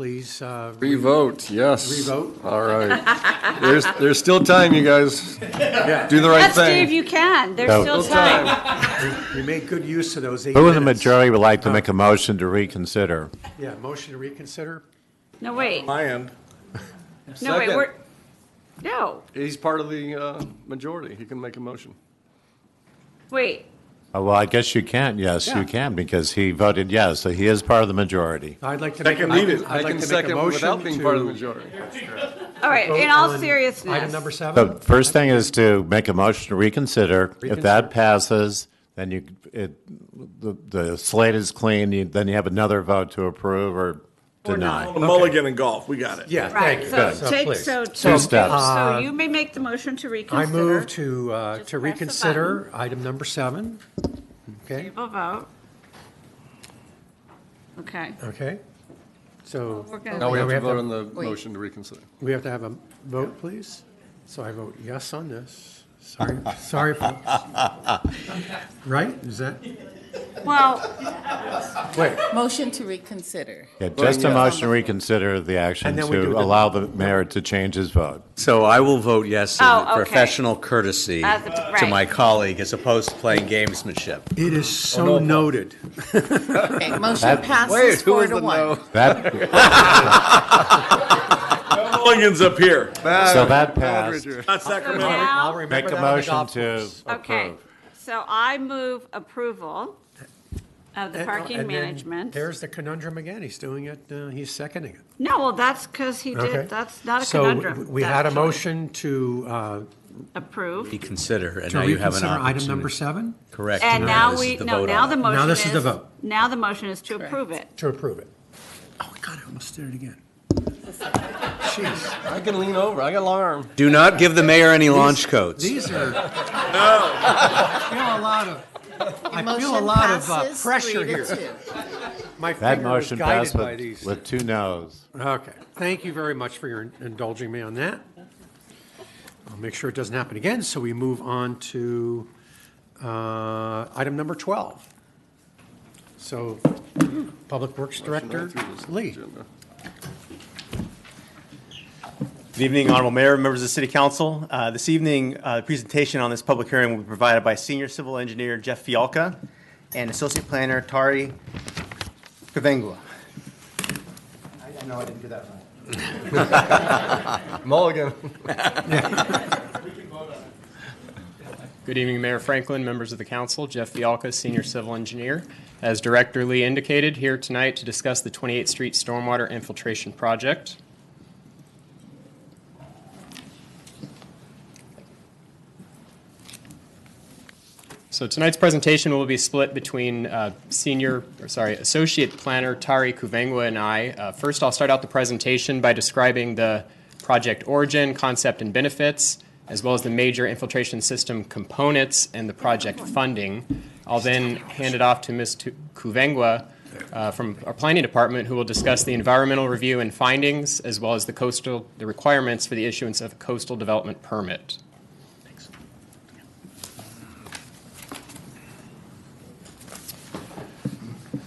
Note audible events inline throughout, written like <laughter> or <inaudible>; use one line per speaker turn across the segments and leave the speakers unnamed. please uh,
Revote, yes.
Revote?
All right. There's, there's still time, you guys. Do the right
Yes, Dave,
thing.
you can. There's
No.
still
Still time.
time.
You made good use of those eight
Who in the
minutes. Oh.
majority would like to make a motion to reconsider?
Yeah, motion to reconsider?
No, wait.
My end.
No, wait,
Second.
we're, no,
He's part of the uh, majority. He can make a motion.
wait.
Oh, Well, I guess you can, yes,
Yeah.
you can, because he voted yes, so he is part of the majority.
I'd like to make. a-
I
I'd like
can
to make a
second
motion
without being part of the
to
majority.
All right,
vote
in all
on Item number
seriousness,
The
seven?
first thing is to make a motion to reconsider. If
Reconsider.
that passes, then you, it, the, the slate is clean, you, then you have another vote to approve or deny.
Mulligan and golf, we got it.
Yeah, thank
right,
you.
so
So
take,
please. Uh,
so.
Two steps.
So you may make the motion to
I
reconsider.
move to, uh,
Just
to
press the
reconsider item number seven. Okay,
We'll vote. Okay.
okay. So
We're gonna-
Now we have to vote on the
Wait.
motion to reconsider.
we have to have a vote, please? So I vote yes on this. Sorry, sorry,
<laughs>
folks. Right, is that,
Well,
wait,
Motion to reconsider.
Yeah, just a
yes.
motion to reconsider the action
And then we do
to
the-
allow the mayor to change his vote.
So I will vote yes in
Oh, okay.
professional courtesy
As a-
to
right.
my colleague as opposed to playing gamesmanship.
it is so
Oh,
noted.
Okay, motion passes four to one.
<laughs>
That,
Mulligan's up here.
so that passed.
Not Sacramento.
I'll
now,
remember
Make a
that on the
motion
golf
to
course.
okay,
approve.
so I move approval of the
And- oh,
parking
and then
management.
There's the conundrum again. He's doing it, uh, he's seconding it.
No, well, that's because he
Okay.
did, that's not a
So we-
conundrum.
we had a
That's what-
motion to, uh,
Approve.
You consider, and
to
now you have an
reconsider item number
opportunity.
seven,
Correct.
And now
this is
we,
the
no,
vote
now
on
the
it.
motion is.
Now this is the vote.
Now the motion is to approve it.
to approve it. Oh, God, I almost did it
<laughs>
again. Jeez,
I can lean over. I got a long arm.
Do not give the mayor any launch codes.
these are. No. I feel a lot of, I feel a
Motion
lot of uh,
passes
pressure
three to
here.
two.
My
That
finger is
motion
guided
passed
by
with,
these.
with two noes.
Okay, thank you very much for your indulging me on that. I'll make sure it doesn't happen again, so we move on to uh, item number 12. So, Public Works Director Lee.
Good evening, Honorable Mayor, members of the City Council. Uh, This evening, uh, the presentation on this public hearing will be provided by Senior Civil Engineer Jeff Fialka and Associate Planner Tari Kavengua. I know I didn't do that right.
Mulligan.
Good evening, Mayor Franklin, members of the council. Jeff Fialka, Senior Civil Engineer. As Director Lee indicated, here tonight to discuss the 28th Street Stormwater Infiltration Project. So tonight's presentation will be split between uh, senior, or sorry, Associate Planner Tari Kuvengwa and I. Uh, First, I'll start out the presentation by describing the project origin, concept, and benefits, as well as the major infiltration system components and the project funding. I'll then hand it off to Ms. Tu- Kuvengwa uh, from our planning department, who will discuss the environmental review and findings, as well as the coastal, the requirements for the issuance of a coastal development permit.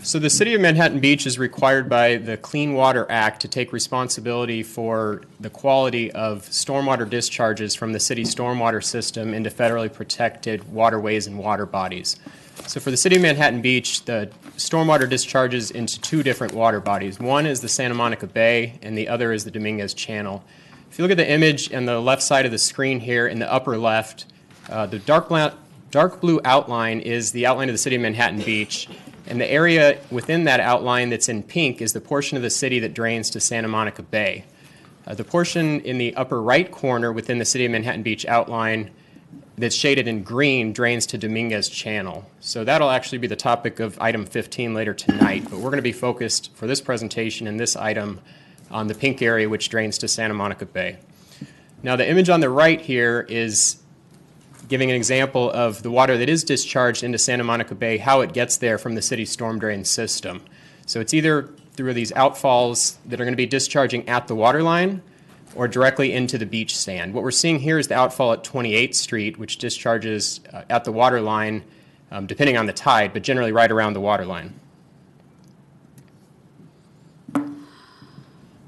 So the city of Manhattan Beach is required by the Clean Water Act to take responsibility for the quality of stormwater discharges from the city's stormwater system into federally protected waterways and water bodies. So for the city of Manhattan Beach, the stormwater discharges into two different water bodies. One is the Santa Monica Bay and the other is the Dominguez Channel. If you look at the image on the left side of the screen here, in the upper left, uh, the dark bla- dark blue outline is the outline of the city of Manhattan Beach, and the area within that outline that's in pink is the portion of the city that drains to Santa Monica Bay. Uh, the portion in the upper right corner within the city of Manhattan Beach outline that's shaded in green drains to Dominguez Channel. So that'll actually be the topic of item 15 later tonight, but we're going to be focused for this presentation and this item on the pink area which drains to Santa Monica Bay. Now, the image on the right here is giving an example of the water that is discharged into Santa Monica Bay, how it gets there from the city's storm drain system. So it's either through these outfalls that are going to be discharging at the water line or directly into the beach sand. What we're seeing here is the outfall at 28th Street, which discharges uh, at the water line, um, depending on the tide, but generally right around the water line.